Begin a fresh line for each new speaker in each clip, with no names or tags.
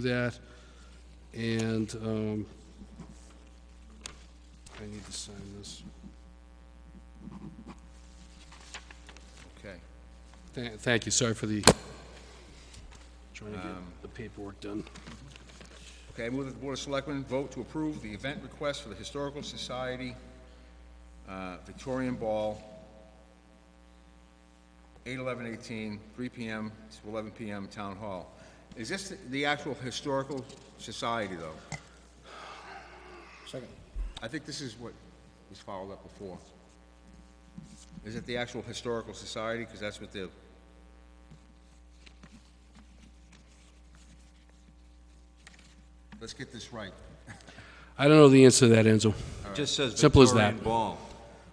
do that. And um, I need to sign this.
Okay.
Tha- Thank you, sorry for the, trying to get the paperwork done.
Okay, I move that the Board of Selectmen vote to approve the event request for the Historical Society uh, Victorian Ball, 8/11/18, 3 PM to 11 PM, Town Hall. Is this the- the actual Historical Society, though?
Second.
I think this is what was followed up before. Is it the actual Historical Society? Because that's what the, let's get this right.
I don't know the answer to that, Enzo.
Just says
Simple as that.
Victorian Ball.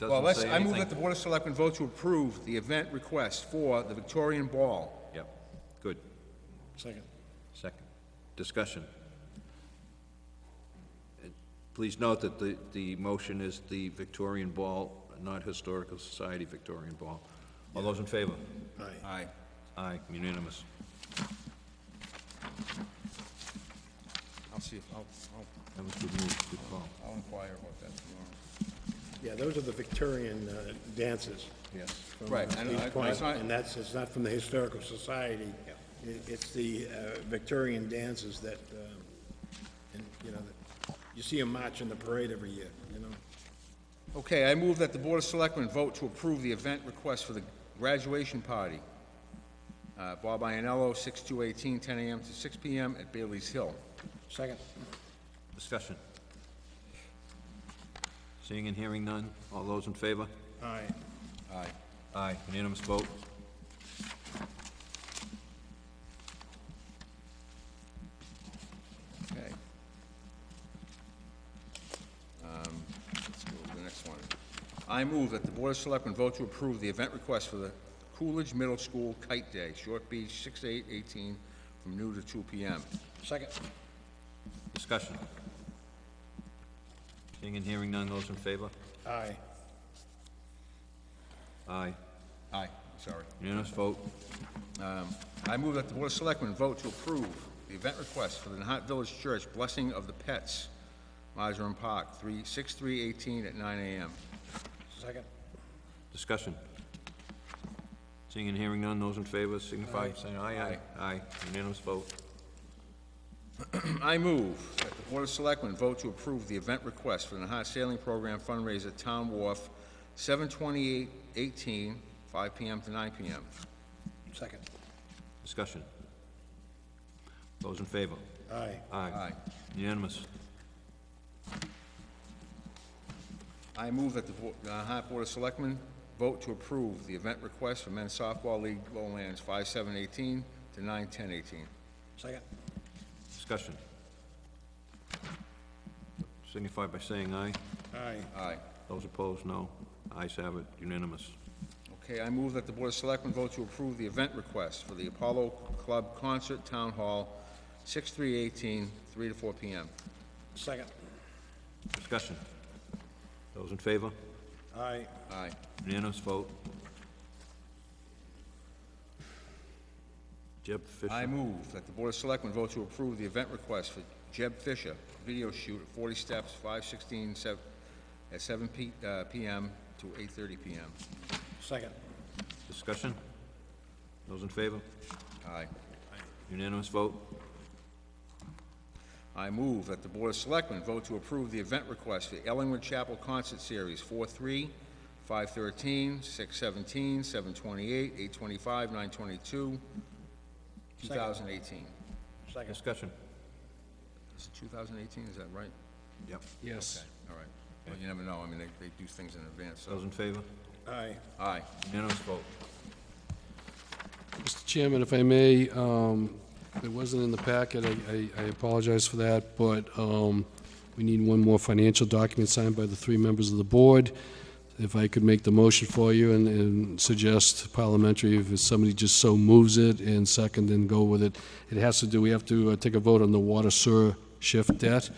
Well,
Doesn't
let's,
say
I move
anything.
that the Board of Selectmen vote to approve the event request for the Victorian Ball.
Yep, good.
Second.
Second. Discussion. And Please note that the, the motion is the Victorian Ball, not Historical Society Victorian Ball. All those in favor?
Aye.
Aye.
Aye, unanimous.
I'll see, if- I'll, I'll,
That was good move, good call.
I'll inquire about that tomorrow.
Yeah, those are the Victorian uh, dances.
Yes.
from,
Right,
uh,
and
East
I-
Point,
it's not-
And that's, it's not from the Historical Society. It- It's the uh, Victorian dances that, um, and, you know, that- you see them march in the parade every year, you know?
Okay, I move that the Board of Selectmen vote to approve the event request for the graduation party. Uh, Bob Ianello, 6/2/18, 10 AM to six PM at Bailey's Hill.
Second.
Discussion. Seeing and hearing none, all those in favor?
Aye.
Aye.
Aye, unanimous vote.
Okay. Um, Let's go to the next one. I move that the Board of Selectmen vote to approve the event request for the Coolidge Middle School Kite Day, Short Beach, 6/8/18, from noon to two PM.
Second.
Discussion. Seeing and hearing none, those in favor?
Aye.
Aye,
Aye, sorry.
unanimous vote.
I move that the Board of Selectmen vote to approve the event request for the Nahat Village Church Blessing of the Pets, Mizram Park, 3, 6/3/18 at nine AM.
Second.
Discussion. Seeing and hearing none, those in favor signify by saying aye, aye. Aye, unanimous vote.
I move that the Board of Selectmen vote to approve the event request for the Nahat Sailing Program fundraiser Town Wharf, 7/28/18, 5 PM to nine PM.
Second.
Discussion. Those in favor?
Aye.
Aye.
Aye.
Unanimous.
I move that the Bo- the Nahat Board of Selectmen vote to approve the event request for Men's Softball League Lowlands, 5/7/18 to 9/10/18.
Second.
Discussion. Signify by saying aye.
Aye.
Aye.
Those opposed, no. Ayes have it, unanimous.
Okay, I move that the Board of Selectmen vote to approve the event request for the Apollo Club Concert Town Hall, 6/3/18, 3 to 4 p.m.
Second.
Discussion. Those in favor?
Aye.
Aye.
Unanimous vote. Jeb Fisher.
I move that the Board of Selectmen vote to approve the event request for Jeb Fisher, video shoot at 40 Steps, 5/16, sev- at 7 p- uh, p.m. to 8:30 p.m.
Second.
Discussion? Those in favor?
Aye.
Unanimous vote?
I move that the Board of Selectmen vote to approve the event request for Ellingwood Chapel Concert Series 4/3, 5/13, 6/17, 7/28, 8/25, 9/22, 2018.
Second.
Discussion?
Is it 2018, is that right?
Yep.
Yes.
All right. Well, you never know, I mean, they, they do things in advance, so.
Those in favor?
Aye.
Aye.
Unanimous vote.
Mr. Chairman, if I may, um, it wasn't in the packet, I- I I apologize for that, but um, we need one more financial document signed by the three members of the board. If I could make the motion for you and- and suggest parliamentary, if somebody just so moves it, and second, then go with it. It has to do, we have to uh, take a vote on the water sewer shift debt.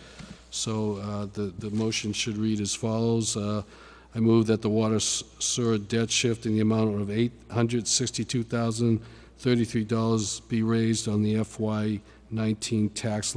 So uh, the, the motion should read as follows. Uh, I move that the water s- sewer debt shift in the amount of $862,033 be raised on the FY 19 tax